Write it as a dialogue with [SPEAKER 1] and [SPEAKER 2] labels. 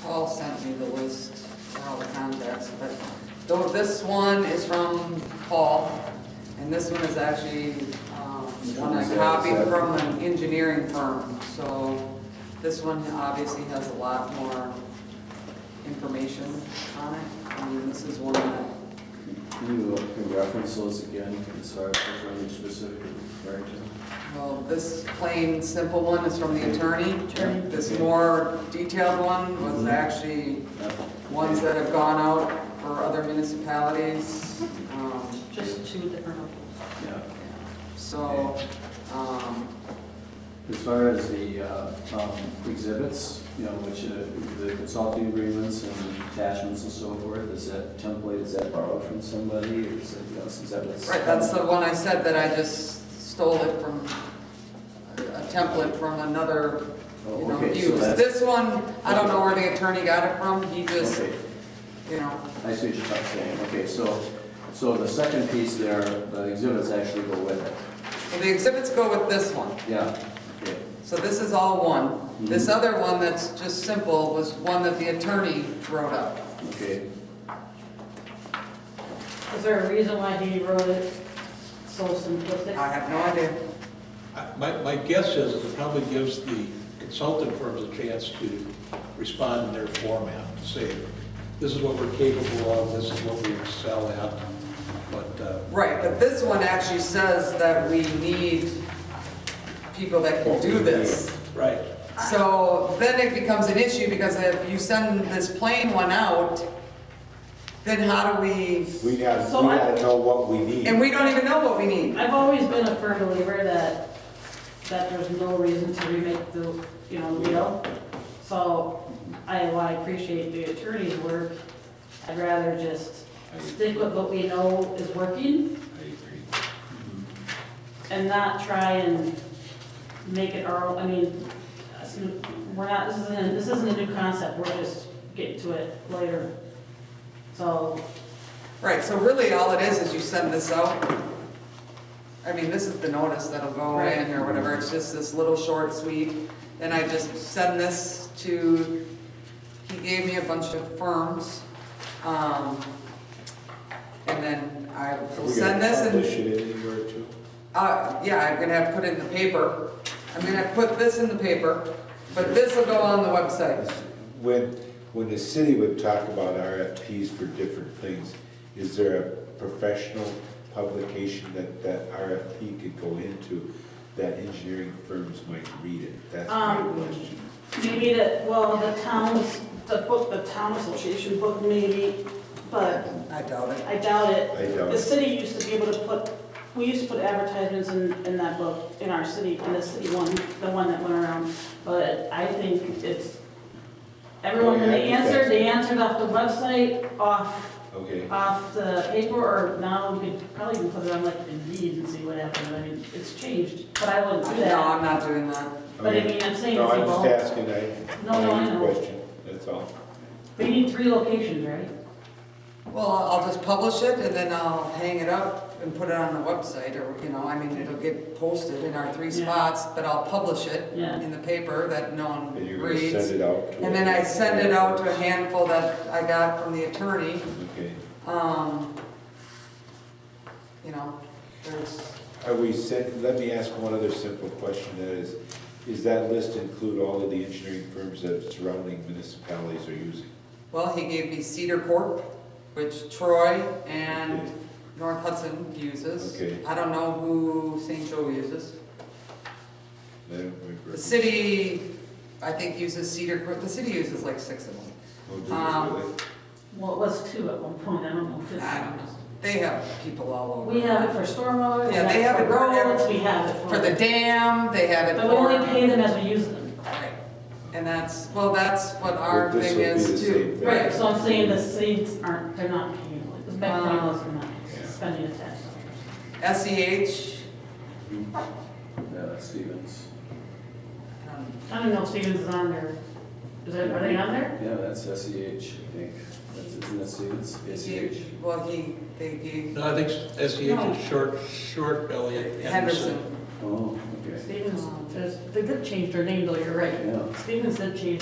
[SPEAKER 1] tells you the list, and all the contacts, but though this one is from Paul, and this one is actually, um, one I copied from an engineering firm, so this one obviously has a lot more information on it. I mean, this is one that,
[SPEAKER 2] Can you, uh, can you reference those again, Can sorry, if there's any specific referring
[SPEAKER 1] well, this plain, simple one is from the attorney. This more detailed one was actually
[SPEAKER 2] to?
[SPEAKER 1] ones that have gone out for other municipalities. um,
[SPEAKER 3] Just two that are.
[SPEAKER 2] Yeah.
[SPEAKER 1] So, um,
[SPEAKER 2] As far as the uh, um, exhibits, you know, which uh, the consulting agreements and attachments and so forth, is that template, is that borrowed from somebody, or is that, you know, is that what's?
[SPEAKER 1] right, that's the one I said that I just stole it from, a template from another, you
[SPEAKER 2] Oh,
[SPEAKER 1] know,
[SPEAKER 2] okay, so
[SPEAKER 1] use.
[SPEAKER 2] that's-
[SPEAKER 1] This one, I don't know where the attorney got it from, he just,
[SPEAKER 2] Okay,
[SPEAKER 1] you know,
[SPEAKER 2] I see what you're saying, okay, so, so the second piece there, the exhibits actually go with it,
[SPEAKER 1] well, the exhibits go with this one.
[SPEAKER 2] yeah, okay,
[SPEAKER 1] So this is all one. This
[SPEAKER 2] Mm-hmm.
[SPEAKER 1] other one that's just simple was one that the attorney wrote up.
[SPEAKER 2] okay.
[SPEAKER 3] Is there a reason why he wrote it so simplistic?
[SPEAKER 1] I have no idea.
[SPEAKER 4] I- My, my guess is it probably gives the consultant firms a chance to respond in their format, to say, this is what we're capable of, this is what we excel at, but, uh,
[SPEAKER 1] Right, but this one actually says that we need people that can do this.
[SPEAKER 4] right,
[SPEAKER 1] So then it becomes an issue because if you send this plain one out, then how do we,
[SPEAKER 5] We gotta,
[SPEAKER 3] So
[SPEAKER 5] we
[SPEAKER 3] I-
[SPEAKER 5] gotta know what we need.
[SPEAKER 1] and we don't even know what we need.
[SPEAKER 3] I've always been a firm believer that, that there's no reason to remake the, you know, the wheel. So I, while I appreciate the attorney's work, I'd rather just stick with what we know is working and not try and make it our, own. I mean, us- we're not, this isn't, this isn't a new concept, we're just getting to it later. So,
[SPEAKER 1] Right, so really all it is is you send this out. I mean, this is the notice that'll go in or whatever, it's just this little short sweet. Then I just send this to, he gave me a bunch of firms. um, And then I
[SPEAKER 5] Are
[SPEAKER 1] will
[SPEAKER 5] we gonna
[SPEAKER 1] send this
[SPEAKER 5] Publish
[SPEAKER 1] and,
[SPEAKER 5] it in a year or two.
[SPEAKER 1] uh, yeah, I'm gonna have to put it in the paper. I'm gonna put this in the paper, but this will go on the website.
[SPEAKER 5] When, when the city would talk about RFPs for different things, is there a professional publication that, that RFP could go into that engineering firms might read it? That's my
[SPEAKER 3] Um,
[SPEAKER 5] question.
[SPEAKER 3] Maybe that, well, the towns, the book, the town association book maybe, but
[SPEAKER 1] I doubt it.
[SPEAKER 3] I doubt it.
[SPEAKER 5] I doubt
[SPEAKER 3] The
[SPEAKER 5] it.
[SPEAKER 3] city used to be able to put, we used to put advertisements in, in that book, in our city, in the city one, the one that went around. But I think it's, everyone, when they answered, they answered off the website, off,
[SPEAKER 5] Okay,
[SPEAKER 3] off the paper, or now we could probably even put it on like Indeed and see what happens. I mean, it's changed, but I wouldn't do
[SPEAKER 1] No,
[SPEAKER 3] that.
[SPEAKER 1] I'm not doing that.
[SPEAKER 3] But I
[SPEAKER 5] okay.
[SPEAKER 3] mean, I'm saying
[SPEAKER 5] No,
[SPEAKER 3] it's
[SPEAKER 5] I'm just
[SPEAKER 3] evolved.
[SPEAKER 5] asking, I,
[SPEAKER 3] No, no, I
[SPEAKER 5] I have a
[SPEAKER 3] know.
[SPEAKER 5] question, that's all.
[SPEAKER 3] We need three locations, right?
[SPEAKER 1] Well, I'll just publish it and then I'll hang it up and put it on the website or, you know, I mean, it'll get posted in our three
[SPEAKER 3] Yeah.
[SPEAKER 1] spots, but I'll publish it
[SPEAKER 3] Yeah.
[SPEAKER 1] in the paper that no one
[SPEAKER 5] And you're gonna
[SPEAKER 1] reads.
[SPEAKER 5] send it out to.
[SPEAKER 1] And then I send it out to a handful that I got from the attorney.
[SPEAKER 5] Okay.
[SPEAKER 1] Um, You know, there's,
[SPEAKER 5] Are we set, let me ask one other simple question, that is, is that list include all of the engineering firms that surrounding municipalities are using?
[SPEAKER 1] well, he gave me Cedar Corp, which Troy and North Hudson uses.
[SPEAKER 5] Okay.
[SPEAKER 1] I don't know who St. Joe uses.
[SPEAKER 5] I don't remember.
[SPEAKER 1] The city, I think, uses Cedar Grove, the city uses like six of them.
[SPEAKER 5] Oh, do you
[SPEAKER 1] um,
[SPEAKER 5] really?
[SPEAKER 3] Well, it was two at one point, I don't know. if it's-
[SPEAKER 1] I don't know. They have people all over.
[SPEAKER 3] We have it for stormwater. we
[SPEAKER 1] Yeah, they have
[SPEAKER 3] for
[SPEAKER 1] it for
[SPEAKER 3] roads,
[SPEAKER 1] every-
[SPEAKER 3] We have it for.
[SPEAKER 1] For the dam, they have it
[SPEAKER 3] But we only pay
[SPEAKER 1] for.
[SPEAKER 3] them as we use them.
[SPEAKER 1] Right. And that's, well, that's what our
[SPEAKER 5] But this
[SPEAKER 1] thing
[SPEAKER 5] would be
[SPEAKER 1] is
[SPEAKER 5] the
[SPEAKER 1] too.
[SPEAKER 5] same thing.
[SPEAKER 1] Right.
[SPEAKER 3] Right, so I'm saying the seeds aren't, they're not paying, like, the back
[SPEAKER 1] Um,
[SPEAKER 3] payments are not spending the tax.
[SPEAKER 1] E SEH,
[SPEAKER 2] Yeah, that's Stevens.
[SPEAKER 1] um,
[SPEAKER 3] I don't know if Stevens is on there. Is that, are they on there?
[SPEAKER 2] Yeah, that's SEH, I think. That's, isn't that Stevens? E
[SPEAKER 5] E
[SPEAKER 2] SEH?
[SPEAKER 1] he- well, he, they gave
[SPEAKER 4] no, I think SEH
[SPEAKER 3] No.
[SPEAKER 4] is short, short Elliott Henderson.
[SPEAKER 1] Henderson.
[SPEAKER 2] Oh, okay.
[SPEAKER 3] Stevens, there's- they did change their name though, you're right.
[SPEAKER 2] Yeah.
[SPEAKER 3] Stevens did change